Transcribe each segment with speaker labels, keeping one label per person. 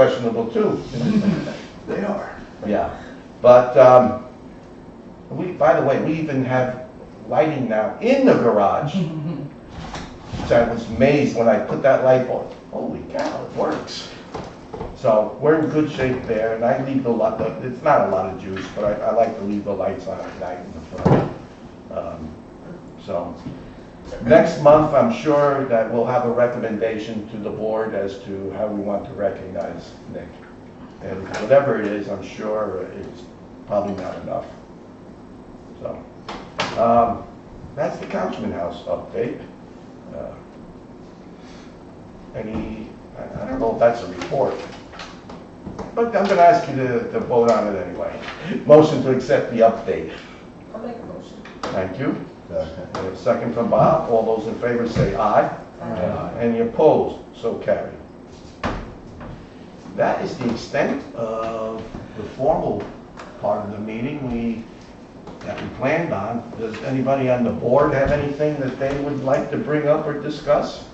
Speaker 1: questionable too.
Speaker 2: They are.
Speaker 1: Yeah, but, um, we, by the way, we even have lighting now in the garage, which I was amazed when I put that light on. Holy cow, it works. So we're in good shape there, and I leave the lot, it's not a lot of juice, but I, I like to leave the lights on at night in the front. Um, So, next month, I'm sure that we'll have a recommendation to the board as to how we want to recognize Nick. And whatever it is, I'm sure it's probably not enough. So, um, that's the Councilman House update. Uh, Any, I I don't know if that's a report, but I'm gonna ask you to, to vote on it anyway. Motion to accept the update.
Speaker 3: I'll make a motion.
Speaker 1: Thank you. Uh, We have a Second from Bob. All those in favor say aye.
Speaker 3: Aye.
Speaker 1: Any opposed? So carried. That is the extent of the formal part of the meeting we, that we planned on. Does anybody on the board have anything that they would like to bring up or discuss?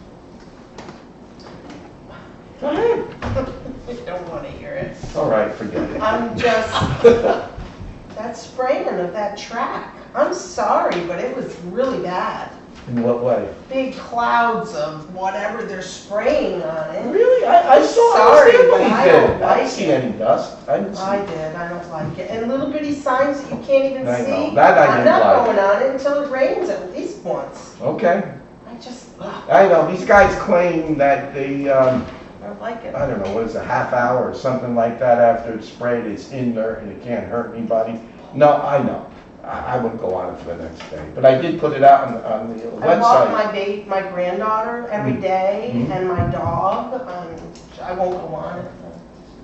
Speaker 1: Go ahead.
Speaker 3: I don't want to hear it.
Speaker 1: All right, forget it.
Speaker 3: I'm just, that spraying of that track, I'm sorry, but it was really bad.
Speaker 1: In what way?
Speaker 3: Big clouds of whatever they're spraying on it.
Speaker 1: Really? I, I saw, I
Speaker 3: Sorry,
Speaker 1: didn't
Speaker 3: but I don't
Speaker 1: I
Speaker 3: like
Speaker 1: didn't see
Speaker 3: it.
Speaker 1: any dust. I didn't see.
Speaker 3: I did, I don't like it. And little bitty signs that you can't even
Speaker 1: I
Speaker 3: see.
Speaker 1: know, that I didn't like.
Speaker 3: I'm not going on it until it rains at least once.
Speaker 1: Okay.
Speaker 3: I just, ugh,
Speaker 1: I know, these guys claim that the, um,
Speaker 3: I don't like it.
Speaker 1: I don't know, what is it, a half hour or something like that after it's sprayed, it's in there and it can't hurt anybody. No, I know, I, I wouldn't go on it for the next day, but I did put it out on, on the
Speaker 3: I walk
Speaker 1: website.
Speaker 3: my ba, my granddaughter
Speaker 1: Mm.
Speaker 3: every day
Speaker 1: Mhm.
Speaker 3: and my dog, um, I won't go on it.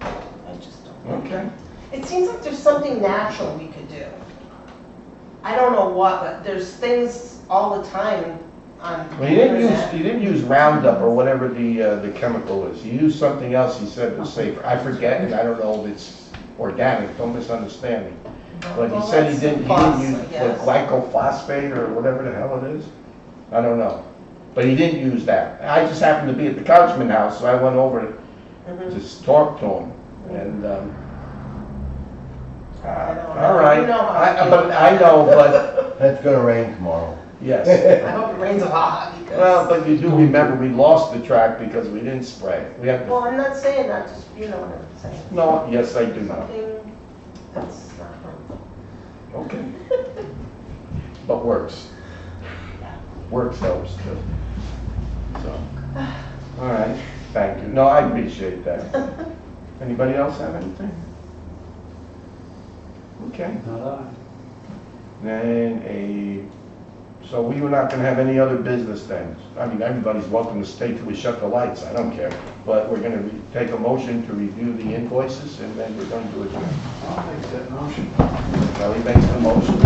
Speaker 3: I just don't.
Speaker 1: Okay,
Speaker 3: It seems like there's something natural we could do. I don't know what, but there's things all the time on.
Speaker 1: well, you didn't use,
Speaker 3: internet.
Speaker 1: you didn't use Roundup or whatever the, uh, the chemical is, you used something else you said was safer, I forget, and I don't know if it's organic, don't misunderstand me. But he
Speaker 3: Well,
Speaker 1: said he
Speaker 3: that's
Speaker 1: didn't, he
Speaker 3: boss, I
Speaker 1: didn't use the
Speaker 3: guess.
Speaker 1: glycophosphate or whatever the hell it is. I don't know. But he didn't use that. I just happened to be at the Couchman house, so I went over to
Speaker 3: Mhm.
Speaker 1: s- talk to him and, um, uh,
Speaker 3: I don't
Speaker 1: all
Speaker 3: know.
Speaker 1: right.
Speaker 3: You know how I
Speaker 1: I,
Speaker 3: feel.
Speaker 1: but I know, but,
Speaker 2: That's gonna rain tomorrow.
Speaker 1: yes.
Speaker 3: I hope it rains a lot because.
Speaker 1: Well, but you do remember, we lost the track because we didn't spray it. We have
Speaker 3: Well,
Speaker 1: to,
Speaker 3: I'm not saying that, just, you know what I'm saying.
Speaker 1: no, yes, I do know.
Speaker 3: Something that's not harmful.
Speaker 1: Okay. But works. Works helps too. So, all right, thank you. No, I appreciate that. Anybody else have anything? Okay, then a, so we were not gonna have any other business then. I mean, everybody's welcome to stay till we shut the lights, I don't care. But we're gonna re- take a motion to review the invoices and then we're going to adjourn.
Speaker 2: I'll make that motion.
Speaker 1: Kelly makes the motion.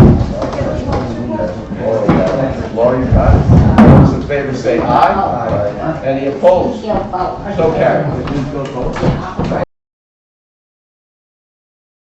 Speaker 1: Laura, you got it? All Those in favor say aye. Any opposed? So carried.
Speaker 2: Please go vote.
Speaker 1: All